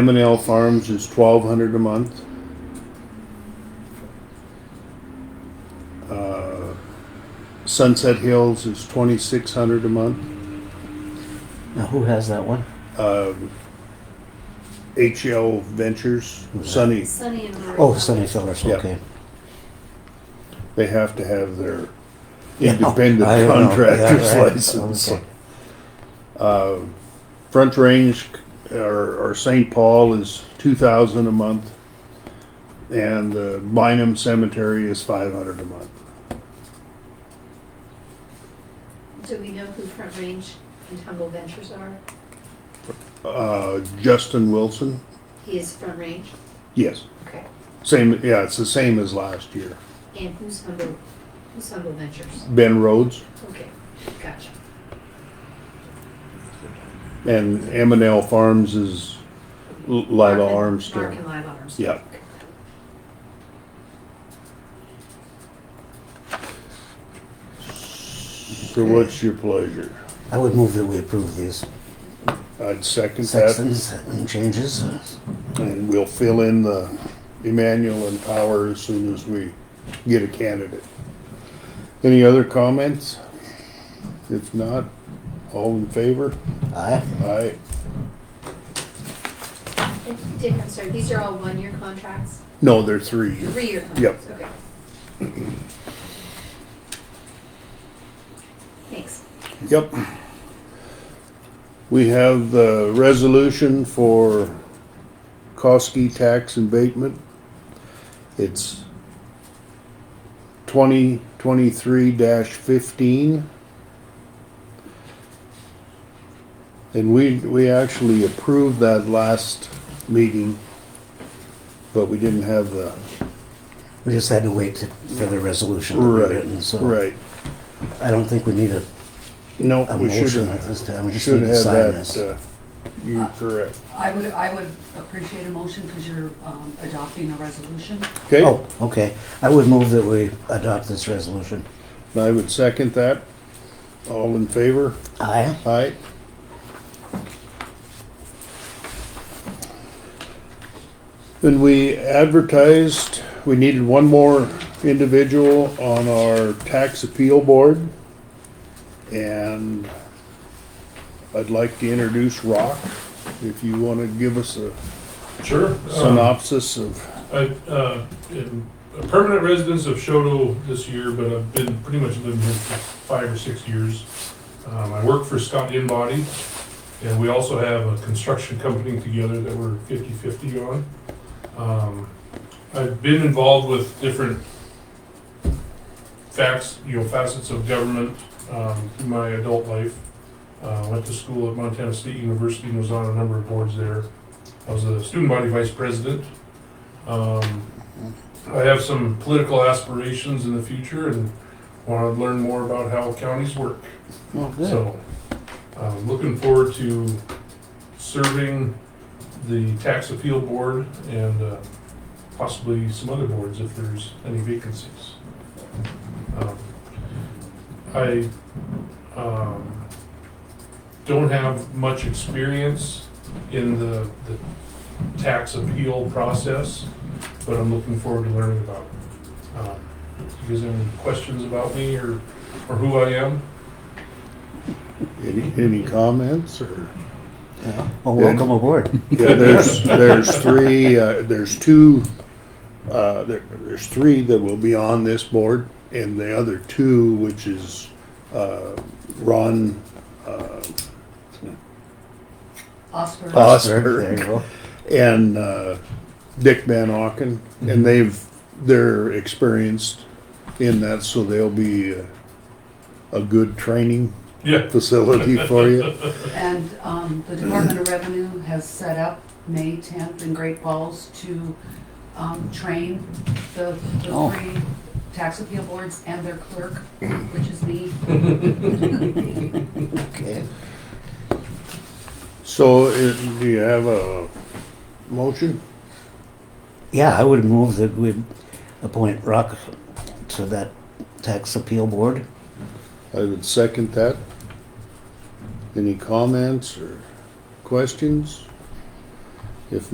M and L Farms is twelve hundred a month. Uh, Sunset Hills is twenty-six hundred a month. Now, who has that one? Um, HL Ventures, Sunny, Sunny and Marie. Oh, Sunny Fellers, Yeah. okay. they have to have their Yeah, independent I don't know. contractor's Yeah, right. license. Okay. Uh, Front Range or, or St. Paul is two thousand a month. And the Bynum Cemetery is five hundred a month. Do we know who Front Range and Humble Ventures are? Uh, Justin Wilson, He is Front Range. yes, Okay. same, yeah, it's the same as last year. And who's Humble, who's Humble Ventures? Ben Rhodes Okay, gotcha. and M and L Farms is L- Lila Mark and- Mark Armstrong. and Lila Armstrong. Yeah. So what's your pleasure? I would move that we approve these I'd second that sections and changes. and we'll fill in the Emmanuel and Power as soon as we get a candidate. Any other comments? If not, all in favor? Aye. Aye. And Dick, I'm sorry, these are all one-year contracts? No, they're three years. Three-year Yep. contracts, okay. Thanks. Yep. We have the resolution for Koski tax abatement. It's twenty twenty-three fifteen. And we, we actually approved that last meeting, but we didn't have the We just had to wait to- for the resolution to be right, written, so right. I don't think we need a, No, a we motion at should, this time. We just should need to have sign this. that, uh, you're correct. I would, I would appreciate a motion because you're um, adopting a resolution. Okay? Oh, okay. I would move that we adopt this resolution. I would second that. All in favor? Aye. Aye. Then we advertised, we needed one more individual on our tax appeal board. And I'd like to introduce Rock, if you want to give us a Sure. Um, synopsis of, I uh, am a permanent resident of Shoto this year, but I've been pretty much living here for five or six years. Um, I work for Scott Inbody, and we also have a construction company together that we're 50/50 on. Um, I've been involved with different facts, you know, facets of government um, through my adult life. Uh, Went to school at Montana State University and was on a number of boards there. I was a student body vice president. Um, I have some political aspirations in the future and want to learn more about how counties work. Well, good. So, um, looking forward to serving the tax appeal board and uh, possibly some other boards if there's any vacancies. Um, I um, don't have much experience in the the tax appeal process, but I'm looking forward to learning about it. Um, You guys have any questions about me or or who I am? any, any comments or? Well, welcome aboard. Yeah, there's, there's three, uh, there's two, uh, there, there's three that will be on this board, and the other two, which is, uh, Ron, uh, Oscar. Uh, There you go. and, uh, Dick Van Auken, and they've, they're experienced in that, so they'll be a, a good training Yeah, facility for you. And um, the Department of Revenue has set up May 10th in Great Falls to um, train the the Oh. three tax appeal boards and their clerk, which is me. Okay. So, uh, do you have a motion? Yeah, I would move that we appoint Rock to that tax appeal board. I would second that. Any comments or questions?